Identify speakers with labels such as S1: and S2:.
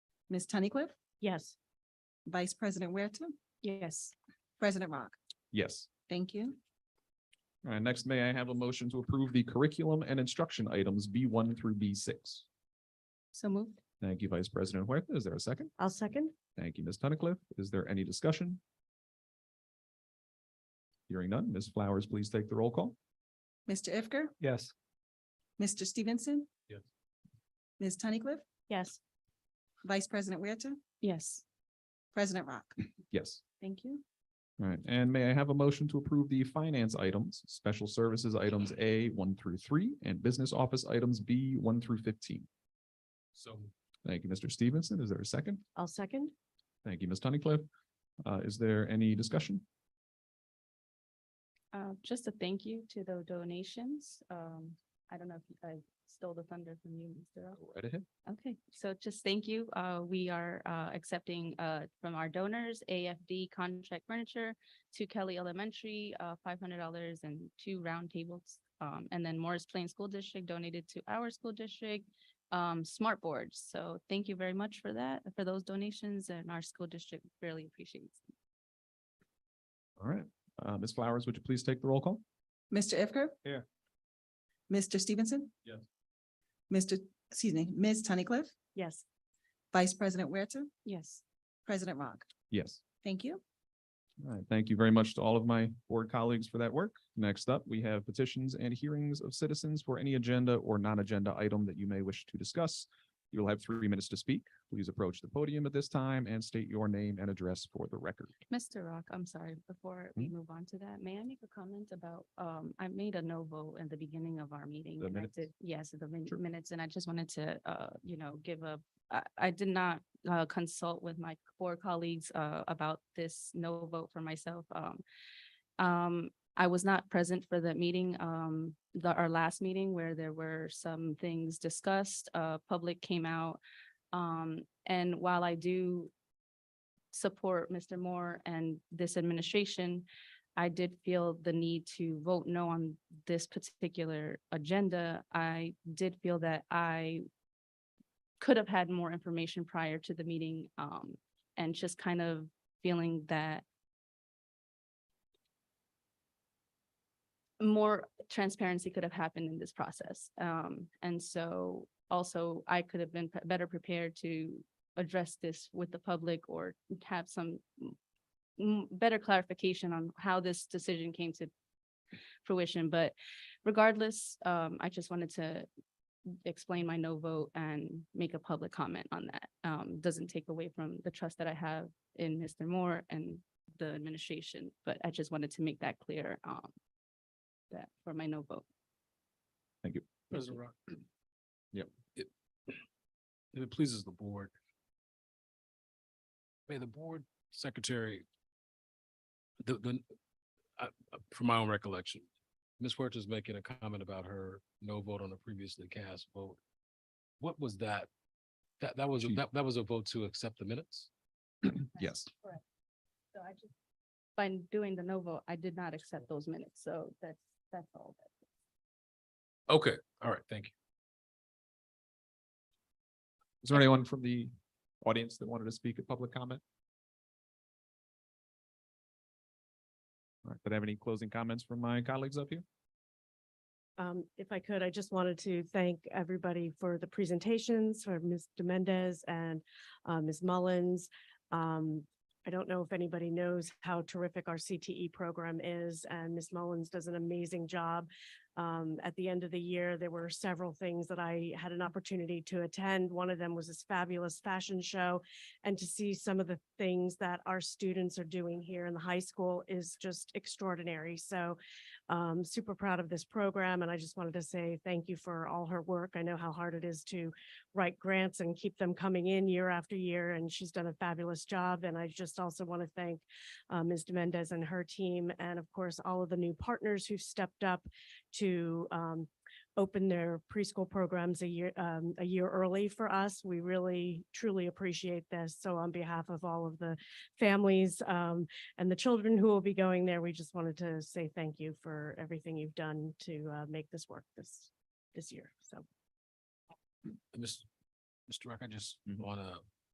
S1: Ms. Tunnicliff,
S2: Yes.
S1: Vice President Huerta,
S2: Yes.
S1: President Rock.
S3: Yes.
S1: Thank you.
S3: All right, next, may I have a motion to approve the curriculum and instruction items B one through B six?
S1: So moved.
S3: Thank you, Vice President Huerta. Is there a second?
S2: I'll second.
S3: Thank you, Ms. Tunnicliff. Is there any discussion? Hearing none, Ms. Flowers, please take the roll call.
S1: Mr. Ifker,
S3: Yes.
S1: Mr. Stevenson.
S3: Yes.
S1: Ms. Tunnicliff,
S2: Yes.
S1: Vice President Huerta,
S2: Yes.
S1: President Rock.
S3: Yes.
S1: Thank you.
S3: All right, and may I have a motion to approve the finance items, special services items A one through three, and business office items B one through fifteen? So. Thank you, Mr. Stevenson. Is there a second?
S2: I'll second.
S3: Thank you, Ms. Tunnicliff. Uh, is there any discussion?
S2: Uh, just a thank you to the donations. Um, I don't know if I stole the thunder from you, Mr. Rock.
S3: Right ahead.
S2: Okay, so just thank you. Uh, we are, uh, accepting, uh, from our donors, AFD contract furniture to Kelly Elementary, uh, five hundred dollars and two round tables. Um, and then Morris Plain School District donated to our school district, um, smart boards. So thank you very much for that, for those donations and our school district really appreciates. it.
S3: All right, uh, Ms. Flowers, would you please take the roll call?
S1: Mr. Ifker.
S3: Here.
S1: Mr. Stevenson.
S3: Yes.
S1: Mr., excuse me, Ms. Tunnicliff,
S2: Yes,
S1: Vice President Huerta,
S2: yes.
S1: President Rock.
S3: Yes.
S1: Thank you.
S3: All right, thank you very much to all of my board colleagues for that work. Next up, we have petitions and hearings of citizens for any agenda or non-agenda item that you may wish to discuss. You'll have three minutes to speak. Please approach the podium at this time and state your name and address for the record.
S2: Mr. Rock, I'm sorry, before
S3: Hmm?
S2: we move on to that, may I make a comment about, um, I made a no vote in the beginning of our meeting.
S3: The
S2: and I
S3: minutes?
S2: did- Yes, the min-
S3: Sure.
S2: minutes, and I just wanted to, uh, you know, give a, I, I did not, uh, consult with my board colleagues, uh, about this no vote for myself, um. Um, I was not present for the meeting, um, the, our last meeting where there were some things discussed, uh, public came out. Um, and while I do support Mr. Moore and this administration, I did feel the need to vote no on this particular agenda. I did feel that I could have had more information prior to the meeting, um, and just kind of feeling that more transparency could have happened in this process. Um, and so also I could have been p- better prepared to address this with the public or have some m- m- better clarification on how this decision came to fruition. But regardless, um, I just wanted to explain my no vote and make a public comment on that. Um, doesn't take away from the trust that I have in Mr. Moore and the administration, but I just wanted to make that clear, um, that for my no vote.
S4: President Rock.
S3: Yep.
S4: If if it pleases the board. May the board secretary. The, the, I, I- from my own recollection, Ms. Huerta's making a comment about her no vote on the previously cast vote. What was that? That, that was, a-
S3: She-
S4: that, that was a vote to accept the minutes?
S3: Yes.
S2: So I just, by doing the no vote, I did not accept those minutes, so that's, that's all.
S4: Okay, all right, thank you.
S3: Is there anyone from the audience that wanted to speak at public comment? All right, did I have any closing comments from my colleagues up here?
S5: Um, if I could, I just wanted to thank everybody for the presentations, for Ms. Mendez and uh, Ms. Mullins. Um, I don't know if anybody knows how terrific our CTE program is, and Ms. Mullins does an amazing job. Um, at the end of the year, there were several things that I had an opportunity to attend. One of them was this fabulous fashion show. And to see some of the things that our students are doing here in the high school is just extraordinary. So um, super proud of this program and I just wanted to say thank you for all her work. I know how hard it is to write grants and keep them coming in year after year and she's done a fabulous job. And I just also want to thank uh, Ms. Mendez and her team and of course, all of the new partners who've stepped up to um, open their preschool programs a year, um, a year early for us. We really truly appreciate this. So on behalf of all of the families um, and the children who will be going there, we just wanted to say thank you for everything you've done to uh, make this work this, this year. So
S4: Mr. Mr. Rock, I just
S3: Mhm.
S4: Mm-hmm. want to